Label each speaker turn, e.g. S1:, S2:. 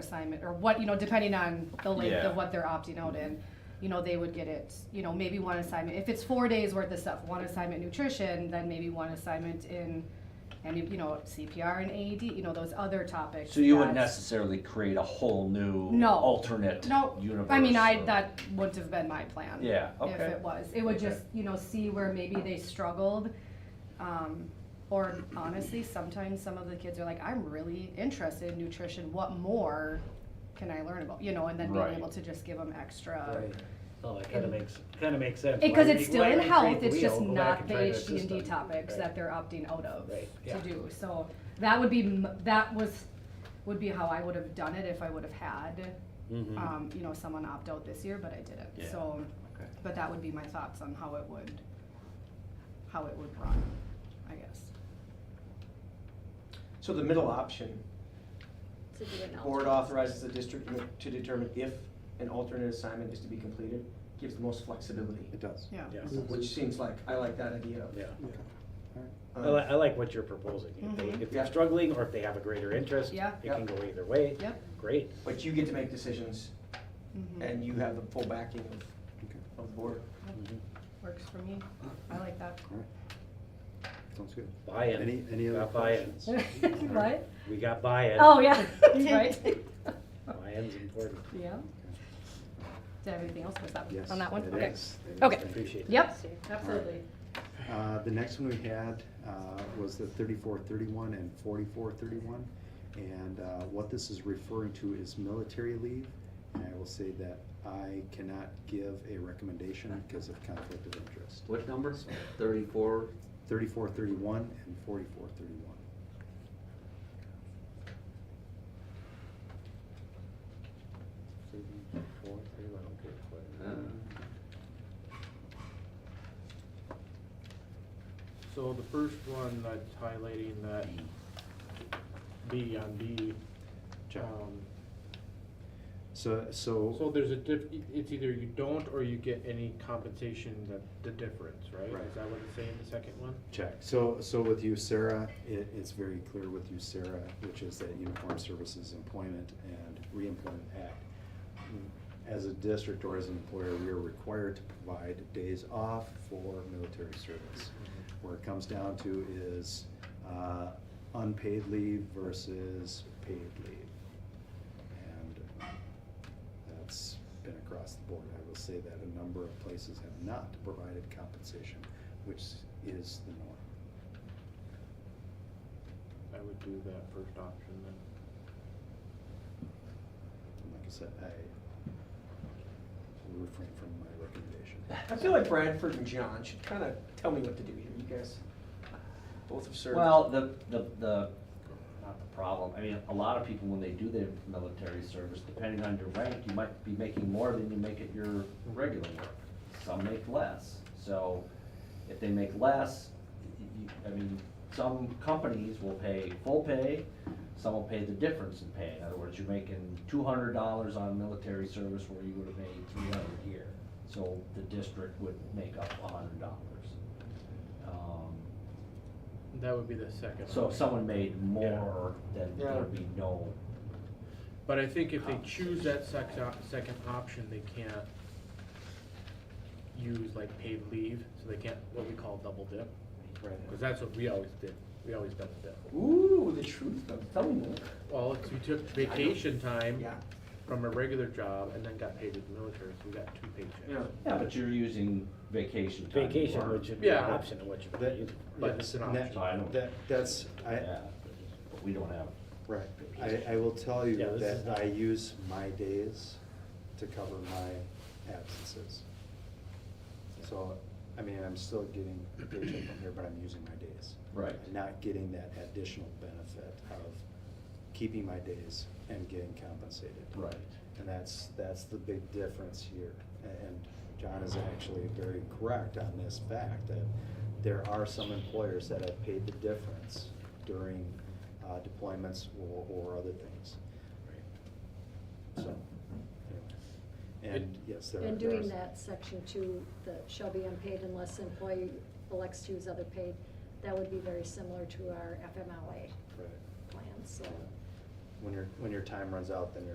S1: assignment or what, you know, depending on the length
S2: Yeah.
S1: of what they're opting out in, you know, they would get it, you know, maybe one assignment. If it's four days worth of stuff, one assignment nutrition, then maybe one assignment in, and you know, CPR and AED, you know, those other topics.
S2: So you wouldn't
S1: that-
S2: necessarily create a whole new
S1: No.
S2: alternate
S1: No,
S2: universe.
S1: I mean, I,
S2: or-
S1: that wouldn't have been my plan.
S2: Yeah,
S1: If
S2: okay.
S1: it was, it would
S2: Okay.
S1: just, you know, see where maybe they struggled. Um, or honestly, sometimes some of the kids are like, I'm really interested in nutrition, what more can I learn about, you know, and then being
S2: Right.
S1: able to just give them extra.
S3: Right. So Oh, it kind of makes, kind of makes sense.
S1: Because
S3: Why
S1: it's
S3: we-
S1: still
S3: why
S1: in
S3: we
S1: health,
S3: create the
S1: it's just
S3: wheel? Go back
S1: not
S3: and
S1: the
S3: try
S1: H D and D
S3: system.
S1: topics
S3: Right.
S1: that they're opting out of
S3: Right,
S1: to
S3: yeah.
S1: do, so that would be, m- that was, would be how I would have done it if I would have had
S3: Mhm.
S1: um, you know, someone opt out this year, but I
S2: Yeah.
S1: didn't, so,
S2: Okay.
S1: but that would be my thoughts on how it would, how it would run, I guess.
S4: So the middle option,
S5: to do an
S4: board
S5: alternate.
S4: authorizes the district to determine if an alternate assignment is to be completed, gives the most flexibility,
S6: It does.
S1: Yeah.
S3: Yes.
S4: which seems like, I like that idea.
S3: Yeah. I
S4: Um,
S3: like, I like what you're proposing. If
S1: Mhm.
S3: they, if they're
S4: Yeah.
S3: struggling or if they have a greater interest,
S1: Yeah.
S3: it can go either way.
S1: Yep.
S3: Great.
S4: But you get to make decisions
S3: Mm-hmm.
S1: Mhm.
S4: and you have the full backing of,
S6: Okay.
S4: of the board.
S3: Mhm.
S1: Works for me, I like that.
S6: All right. Sounds good.
S3: Buy-in.
S6: Any, any other
S3: Got buy-in.
S6: questions?
S1: What?
S3: We got buy-in.
S1: Oh, yeah, right?
S3: Buy-in's important.
S1: Yeah. Did I have anything else with that,
S6: Yes,
S1: on that one?
S6: it
S1: Okay.
S6: is. It is.
S1: Okay.
S6: Thank you.
S3: Appreciate it.
S1: Yep,
S5: Same.
S1: absolutely.
S6: Uh, The next one we had uh, was the thirty-four thirty-one and forty-four thirty-one. And uh, what this is referring to is military leave. And I will say that I cannot give a recommendation because of conflict of interest.
S7: What numbers? Thirty-four?
S6: Thirty-four thirty-one and forty-four thirty-one.
S3: Four, three, one, okay, four.
S7: Uh,
S8: So the first one that's highlighting that B on B,
S6: Check. Oh.
S8: um,
S6: So,
S8: so
S6: so,
S8: there's a diff, e, it's either you don't or you get any compensation that, the difference, right?
S6: Right.
S8: Is that what it's saying, the second one?
S6: check. So, so with you, Sarah, it, it's very clear with you, Sarah, which is that Uniform Services Employment and Reemployment Act.
S7: Mm-hmm.
S6: As a district or as an employer, we are required to provide days off for military service.
S8: Mm-hmm.
S6: Where it comes down to is, uh, unpaid leave versus paid leave. And that's been across the board. I will say that a number of places have not provided compensation, which is the norm.
S8: I would do that first option then.
S6: And like I said, I will refrain from my recommendation.
S4: I feel like Bradford and John should kind of tell me what to do here, you guys both have served.
S7: Well, the, the, the, not the problem, I mean, a lot of people, when they do their military service, depending on your rank, you might be making more than you make at your regular work. Some make less, so if they make less, y- y- I mean, some companies will pay full pay, some will pay the difference in pay. In other words, you're making two hundred dollars on military service where you would have made three hundred here. So the district would make up a hundred dollars. Um,
S8: That would be the second.
S7: so if
S8: option.
S7: someone made more, then
S4: Yeah.
S7: there'd be no,
S8: But I think if they choose that sex op- second option, they can't use like paid leave, so they can't, what we call double dip. Cause that's what we always did, we always done the dip.
S4: Ooh, the truth, though. tell me more.
S8: Well, it's we took vacation time
S4: Yeah.
S8: from a regular job and then got paid with the military, so we got two paychecks.
S7: yeah, but you're using vacation time.
S3: Vacation,
S7: for-
S3: which should be an
S8: Yeah.
S3: option of what you
S6: That-
S3: use.
S8: But it's an
S6: And that-
S8: option.
S7: I don't-
S6: That, that's, I,
S7: Yeah, but we don't have,
S6: right, I, I will tell you
S3: Yeah, this is
S6: that
S3: not-
S6: I use my days to cover my absences. So, I mean, I'm still getting a paycheck from here, but I'm using my days.
S7: Right.
S6: I'm Not getting that additional benefit of keeping my days and getting compensated.
S7: right,
S6: And that's, that's the big difference here. And John is actually very correct on this fact that there are some employers that have paid the difference during uh, deployments or, or other things. So, anyway. And yes, there are.
S5: And
S6: there are
S5: doing
S6: some-
S5: that section two, that shall be unpaid unless employee elects to use other paid, that would be very similar to our FMLA
S6: right.
S5: plan, so.
S6: When your, when your time runs out, then you're